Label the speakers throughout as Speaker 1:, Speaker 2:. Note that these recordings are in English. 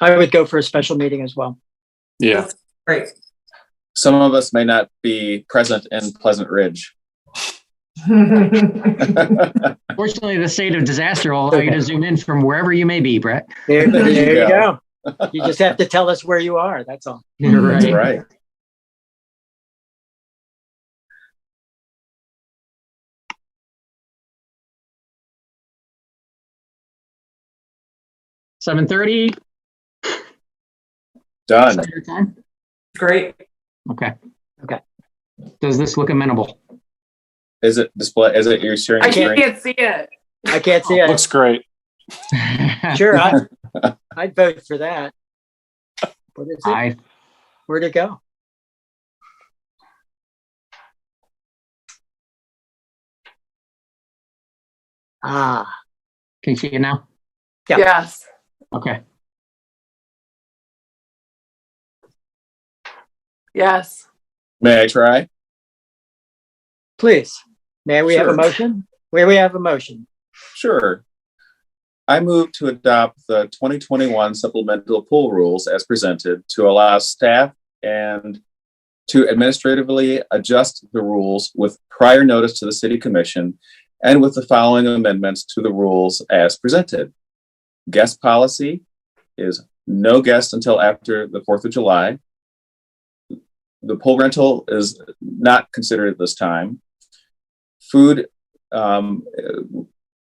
Speaker 1: I would go for a special meeting as well.
Speaker 2: Yeah.
Speaker 3: Great.
Speaker 4: Some of us may not be present in Pleasant Ridge.
Speaker 5: Fortunately, the state of disaster will allow you to zoom in from wherever you may be, Brett.
Speaker 1: There,
Speaker 4: There you
Speaker 1: there you go. You just have to tell us where you are, that's all.
Speaker 5: You're
Speaker 4: That's right.
Speaker 5: Seven thirty, is
Speaker 4: Done.
Speaker 5: that your time?
Speaker 3: Great.
Speaker 5: Okay.
Speaker 1: Okay.
Speaker 5: Does this look amenable?
Speaker 4: Is it display? Is it your sharing
Speaker 3: I
Speaker 4: screen?
Speaker 3: can't see it.
Speaker 1: I can't see it.
Speaker 2: Looks great.
Speaker 1: Sure, I, I'd vote for that. What is it?
Speaker 5: I,
Speaker 1: Where'd it go? Ah,
Speaker 5: can you see it now?
Speaker 1: Yeah.
Speaker 3: Yes.
Speaker 5: Okay,
Speaker 3: Yes.
Speaker 4: May I try?
Speaker 1: please, may we have a
Speaker 4: Sure.
Speaker 1: motion? Where we have a motion?
Speaker 4: Sure. I move to adopt the 2021 supplemental pool rules as presented to allow staff and to administratively adjust the rules with prior notice to the city commission and with the following amendments to the rules as presented. Guest policy is no guest until after the 4th of July. The pool rental is not considered at this time. Food um,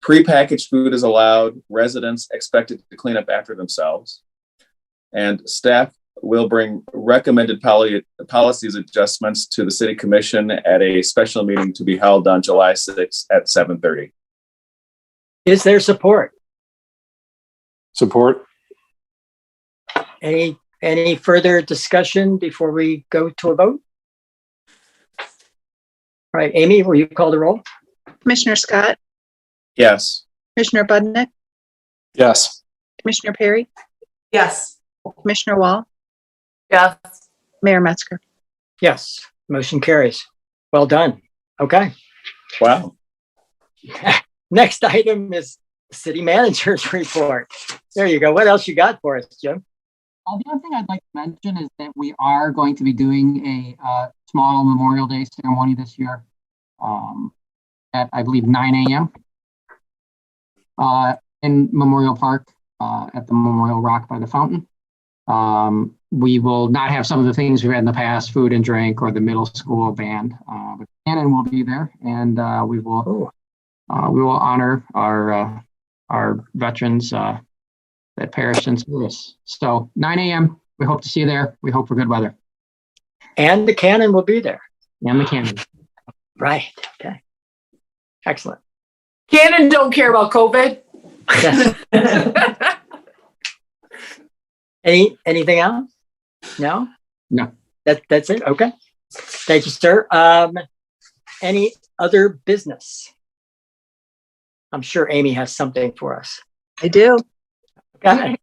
Speaker 4: Prepackaged food is allowed. Residents expected to clean up after themselves. And staff will bring recommended poli- policies adjustments to the city commission at a special meeting to be held on July 6th at 7:30.
Speaker 1: Is there support?
Speaker 2: Support.
Speaker 1: Any, any further discussion before we go to a vote? All right, Amy, will you call the roll?
Speaker 6: Commissioner Scott,
Speaker 4: Yes.
Speaker 6: Commissioner Budnick,
Speaker 2: Yes.
Speaker 6: Commissioner Perry,
Speaker 3: Yes.
Speaker 6: Commissioner Wall,
Speaker 3: Yes.
Speaker 6: Mayor Metzger.
Speaker 1: Yes, motion carries. Well done. Okay.
Speaker 4: Wow.
Speaker 1: Next item is city manager's report. There you go. What else you got for us, Jim?
Speaker 5: Uh, the other thing I'd like to mention is that we are going to be doing a uh, small Memorial Day ceremony this year um, at, I believe, 9 a.m. Uh, in Memorial Park uh, at the Memorial Rock by the fountain. Um, we will not have some of the things we've had in the past, food and drink, or the middle school band, uh, but Shannon will be there, and uh, we will uh, we will honor our uh, our veterans. Uh, that perished in service. So 9 a.m. We hope to see you there. We hope for good weather
Speaker 1: And the cannon will be there.
Speaker 5: and the cannon.
Speaker 1: Right. Okay. Excellent.
Speaker 3: Cannon don't care about COVID.
Speaker 1: Yes. Any, anything else? No?
Speaker 5: No.
Speaker 1: That, that's it? Okay. Thank you, sir. Um, any other business? I'm sure Amy has something for us.
Speaker 6: I do.
Speaker 1: Go ahead.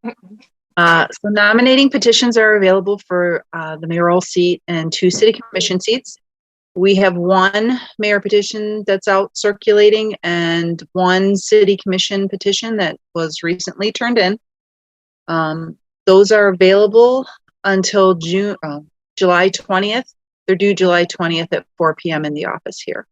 Speaker 6: Uh, So nominating petitions are available for uh, the mayoral seat and two city commission seats. We have one mayor petition that's out circulating and one city commission petition that was recently turned in. Um, Those are available until June, uh, July 20th. They're due July 20th at 4 PM in the office here.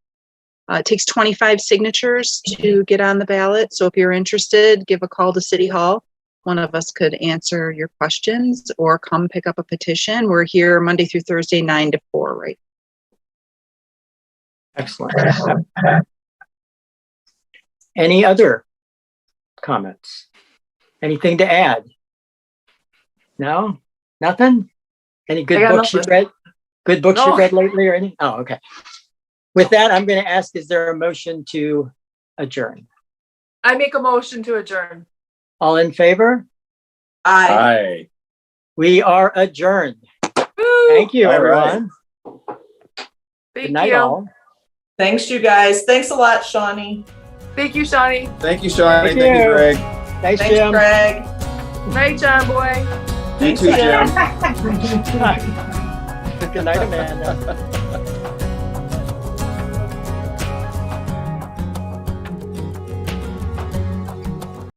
Speaker 6: Uh, It takes 25 signatures to get on the ballot, so if you're interested, give a call to City Hall one of us could answer your questions or come pick up a petition. We're here Monday through Thursday, nine to four, right?
Speaker 1: Excellent. Any other comments? Anything to add? No? Nothing? Any
Speaker 3: I
Speaker 1: good
Speaker 3: got
Speaker 1: books you've
Speaker 3: nothing.
Speaker 1: read? Good books
Speaker 3: No.
Speaker 1: you've read lately or any? Oh, okay. With that, I'm going to ask, is there a motion to adjourn?
Speaker 3: I make a motion to adjourn.
Speaker 1: All in favor?
Speaker 4: Hi.
Speaker 1: We are adjourned.
Speaker 3: Woo.
Speaker 1: Thank you,
Speaker 4: All right.
Speaker 1: everyone. Good
Speaker 3: Thank
Speaker 1: night,
Speaker 3: you.
Speaker 1: all.
Speaker 7: Thanks, you guys. Thanks a lot, Shawnee.
Speaker 3: Thank you, Shawnee.
Speaker 4: Thank you, Shawnee.
Speaker 1: Thank
Speaker 4: Thank you,
Speaker 1: you.
Speaker 4: Greg.
Speaker 1: Thanks,
Speaker 7: Thanks,
Speaker 1: Jim.
Speaker 7: Greg.
Speaker 3: Night, John boy.
Speaker 4: You too, Jim.
Speaker 1: Good night, Amanda.